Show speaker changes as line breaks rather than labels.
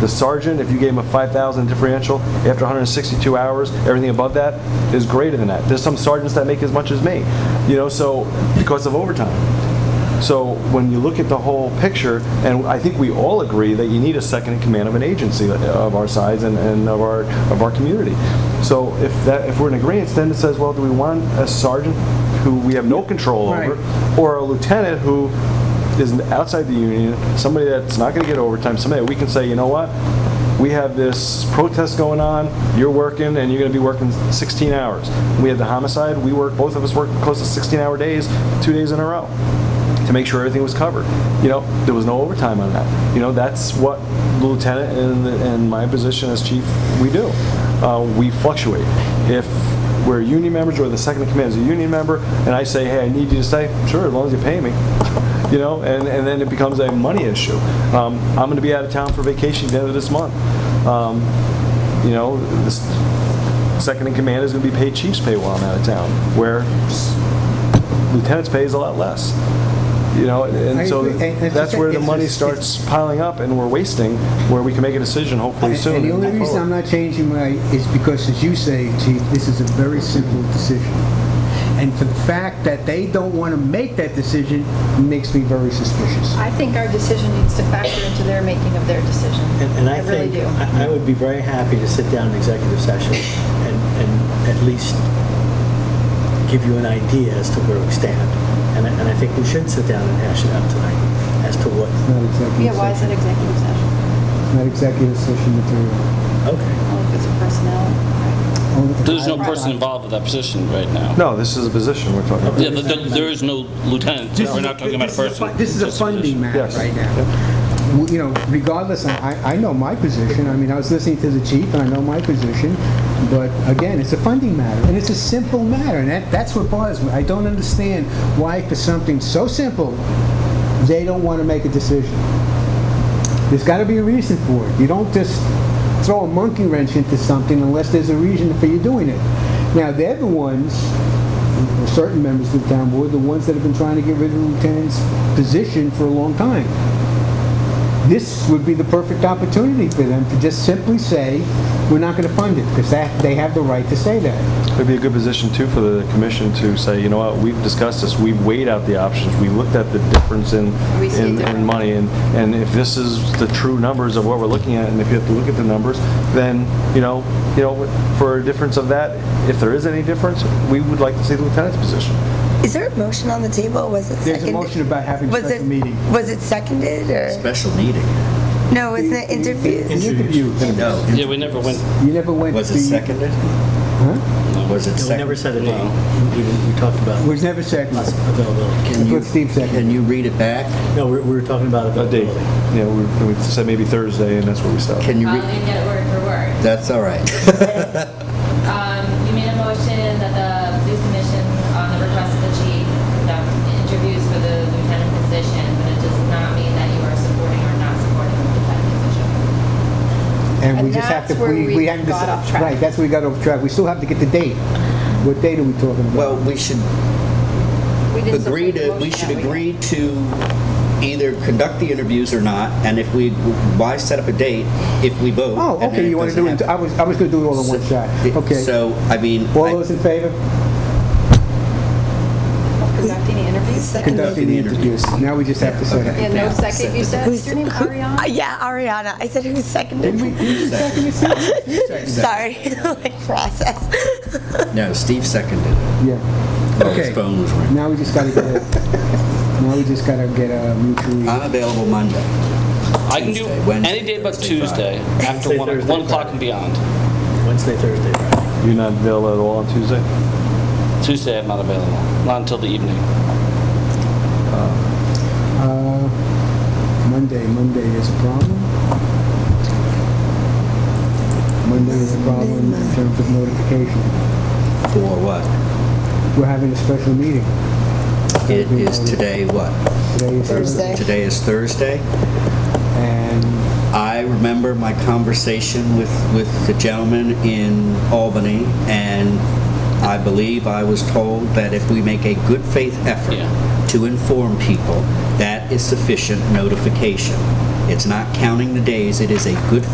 The sergeant, if you gave him a 5,000 differential after 162 hours, everything above that is greater than that. There's some sergeants that make as much as me, you know, so, because of overtime. So when you look at the whole picture, and I think we all agree that you need a second in command of an agency uh, of our size and, and of our, of our community. So if that, if we're in agreement, then it says, well, do we want a sergeant who we have no control
Right.
over? Or a lieutenant who is outside the union, somebody that's not gonna get overtime, somebody that we can say, you know what? We have this protest going on, you're working, and you're gonna be working 16 hours. We had the homicide, we work, both of us worked close to 16-hour days, two days in a row to make sure everything was covered. You know, there was no overtime on that. You know, that's what the lieutenant and, and my position as chief, we do. Uh, we fluctuate. If we're union members or the second in command is a union member, and I say, hey, I need you to stay, sure, as long as you pay me. You know, and, and then it becomes a money issue. Um, I'm gonna be out of town for vacation at the end of this month. Um, you know, this second in command is gonna be paid chief's pay while I'm out of town, where lieutenant's pay is a lot less. You know, and
I
and so
agree. And it's
that's
just-
where the
it's
money
just- it's-
starts piling up and we're wasting, where we can make a decision hopefully soon.
And the only
and move
reason I'm
forward.
not changing my, is because, as you say, chief, this is a very simple decision. And for the fact that they don't want to make that decision makes me very suspicious.
I think our decision needs to factor into their making of their decision.
And and I
really
think,
do.
I I would be very happy to sit down in executive session and, and at least give you an idea as to where we stand. And I, and I think we should sit down and hash it out tonight as to what,
Not executive
Um, Yeah, why is it
session.
executive session?
Not executive session material.
okay.
Well, if it's a personnel,
There's no person involved with that position right now.
No, this is a position we're talking about.
Yeah, th- th- There is no lieutenant, we're not talking about a
This is
person.
fu- This is a
Just a
funding
position.
matter
Yes.
right now. W- You know, regardless, I, I know my position, I mean, I was listening to the chief, and I know my position, but again, it's a funding matter, and it's a simple matter, and that, that's what bothers me. I don't understand why for something so simple, they don't want to make a decision. There's got to be a reason for it. You don't just throw a monkey wrench into something unless there's a reason for you doing it. Now, they're the ones, or certain members of the town board, the ones that have been trying to get rid of the lieutenant's position for a long time. This would be the perfect opportunity for them to just simply say, we're not going to fund it, because that, they have the right to say that.
It'd be a good position too for the commission to say, you know what, we've discussed this, we've weighed out the options, we looked at the difference in,
We see
in-
different.
in money, and, and if this is the true numbers of what we're looking at, and if you have to look at the numbers, then, you know, you know, for a difference of that, if there is any difference, we would like to see the lieutenant's position.
Is there a motion on the table? Was it
There's a
seconded?
motion about having
Was
special
it-
meeting.
Was it seconded or?
Special meeting.
No, wasn't it
Uh,
interviews?
Interview.
No.
Yeah, we never went,
You never went to...
Was it seconded?
Huh?
Was it
No,
seconded?
we never set a date.
No.
We we talked about
Uh,
Was never seconded.
us availability.
Can you-
What Steve said.
Can you read it back?
No, we we were talking about
A date,
availability.
yeah, we, we said maybe Thursday, and that's where we stopped.
Can you
I'll
read?
read Um, it word for word.
That's all right.
Um, You made a motion that the police commission, on the request of the chief, conduct interviews for the lieutenant position, but it does not mean that you are supporting or not supporting the lieutenant position.
And we
And
just have to,
that's where
we,
we
we have to...
got off track.
Right, that's where we got off track. We still have to get the date. What date are we talking about?
Um,
Well, we should
right? We didn't
agree
support the
to, we
motion
should
that we-
agree to either conduct the interviews or not, and if we, why set up a date if we vote?
Oh,
and then
okay, you want to
doesn't
do it, I
happen?
was, I was going to do it all in one shot. Okay.
So, I mean,
All
I-
those in favor?
Of Conducting the interviews?
Conducting the interviews. Now we just have to set
Yeah,
it.
no second, you said, is
Who's-
your name
who- uh,
Ariana?
Yeah, Ariana. I said who
Didn't we,
seconded?
didn't we second it? Steve?
Sorry, like process.
no, Steve seconded it.
Yeah,
Well,
Okay.
His phone was ringing.
now we just got to get a, now we just got to get a mutually,
I'm available Monday.
I can do
Tuesday, Wednesday,
any day but
Thursday,
Tuesday, after
Wednesday,
one
Thursday,
one o'clock
Friday.
and beyond.
Wednesday, Thursday, Friday.
You're not available at all on Tuesday?
Tuesday, I'm not available, not until the evening.
uh, Monday, Monday is a problem. Monday is a problem in terms of notification.
For what?
We're having a special meeting.
It is today what?
Today is
Thursday.
Today is Thursday.
And
I remember my conversation with, with the gentleman in Albany, and I believe I was told that if we make a good faith effort
Yeah.
to inform people, that is sufficient notification. It's not counting the days, it is a good